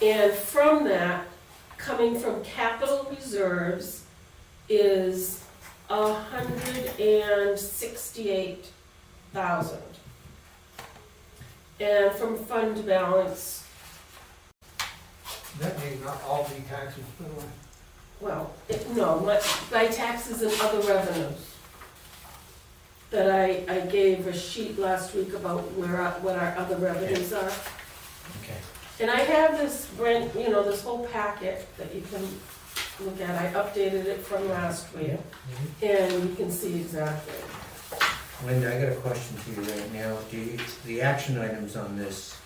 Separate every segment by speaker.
Speaker 1: And from that, coming from capital reserves is a hundred and sixty-eight thousand. And from fund balance,
Speaker 2: That may not all be taxes, uh, by the way.
Speaker 1: well, it- no, my, my taxes and other revenues. That I, I gave a sheet last week about where, our- what our other revenues are.
Speaker 3: Okay.
Speaker 1: And I have this Brent, you know, this whole packet that you can look at, I updated it from last week,
Speaker 3: Mhm.
Speaker 1: and you can see exactly.
Speaker 3: Linda, I got a question for you right now. Do you, the action items on this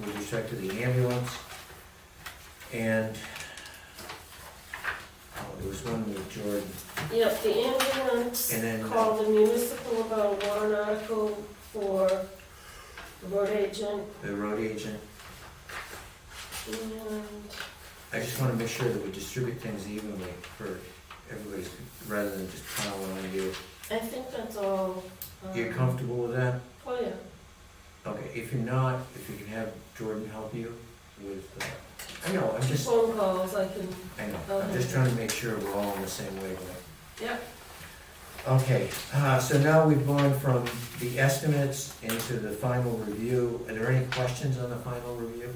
Speaker 3: with respect to the ambulance and, oh, there was one with Jordan.
Speaker 1: Yep, the ambulance
Speaker 3: And then-
Speaker 1: called the municipal about a warrant article for the road agent,
Speaker 3: the road agent.
Speaker 1: and
Speaker 3: I just wanna make sure that we distribute things evenly for everybody's, rather than just piling on you.
Speaker 1: I think that's all. um,
Speaker 3: You're comfortable with that?
Speaker 1: Oh, yeah,
Speaker 3: Okay, if you're not, if you can have Jordan help you with, uh, I know, I'm just,
Speaker 1: phone calls, I can,
Speaker 3: I know, I'm just trying to make sure we're all on the same wavelength.
Speaker 1: Yep.
Speaker 3: Okay, uh, so now we've gone from the estimates into the final review. Are there any questions on the final review?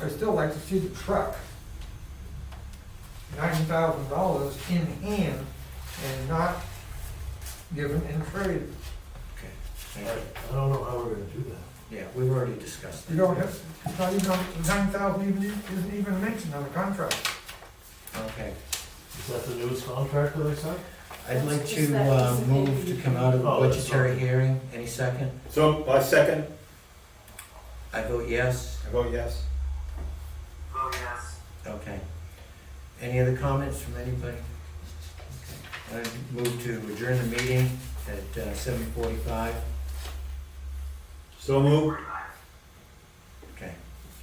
Speaker 2: I'd still like to see the truck. Ninety thousand dollars in hand and not given in trade.
Speaker 3: Okay,
Speaker 4: I
Speaker 3: thank you.
Speaker 4: I don't know how we're gonna do that.
Speaker 3: Yeah, we've already discussed that.
Speaker 2: You don't have, it's not even, nine thousand even, isn't even mentioned on the contract.
Speaker 3: Okay,
Speaker 4: Is that the newest contract that I signed?
Speaker 3: I'd like
Speaker 1: That's just
Speaker 3: to
Speaker 1: that
Speaker 3: uh,
Speaker 1: piece of
Speaker 3: move
Speaker 1: paper
Speaker 3: to
Speaker 1: you
Speaker 3: come
Speaker 1: can-
Speaker 3: out of the
Speaker 4: Oh, that's
Speaker 3: budgetary
Speaker 4: fine.
Speaker 3: hearing. Any second?
Speaker 5: So, I second,
Speaker 3: I vote yes.
Speaker 5: I vote yes.
Speaker 3: Okay. Any other comments from anybody? Okay. I move to adjourn the meeting at uh, seven forty-five.
Speaker 5: So move.
Speaker 3: Okay.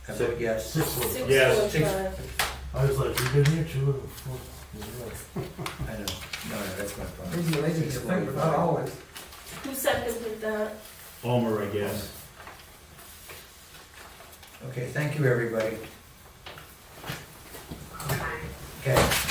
Speaker 3: I vote yes.
Speaker 4: Six one.
Speaker 1: six
Speaker 5: Yes.
Speaker 1: forty-five.
Speaker 4: I was like, you've been here two and four. Yeah.
Speaker 3: I know. No, no, that's my problem.
Speaker 2: Maybe lazy to think, but not always.
Speaker 1: Who seconded that?
Speaker 5: Homer, I guess.
Speaker 3: Okay, thank you, everybody. Okay,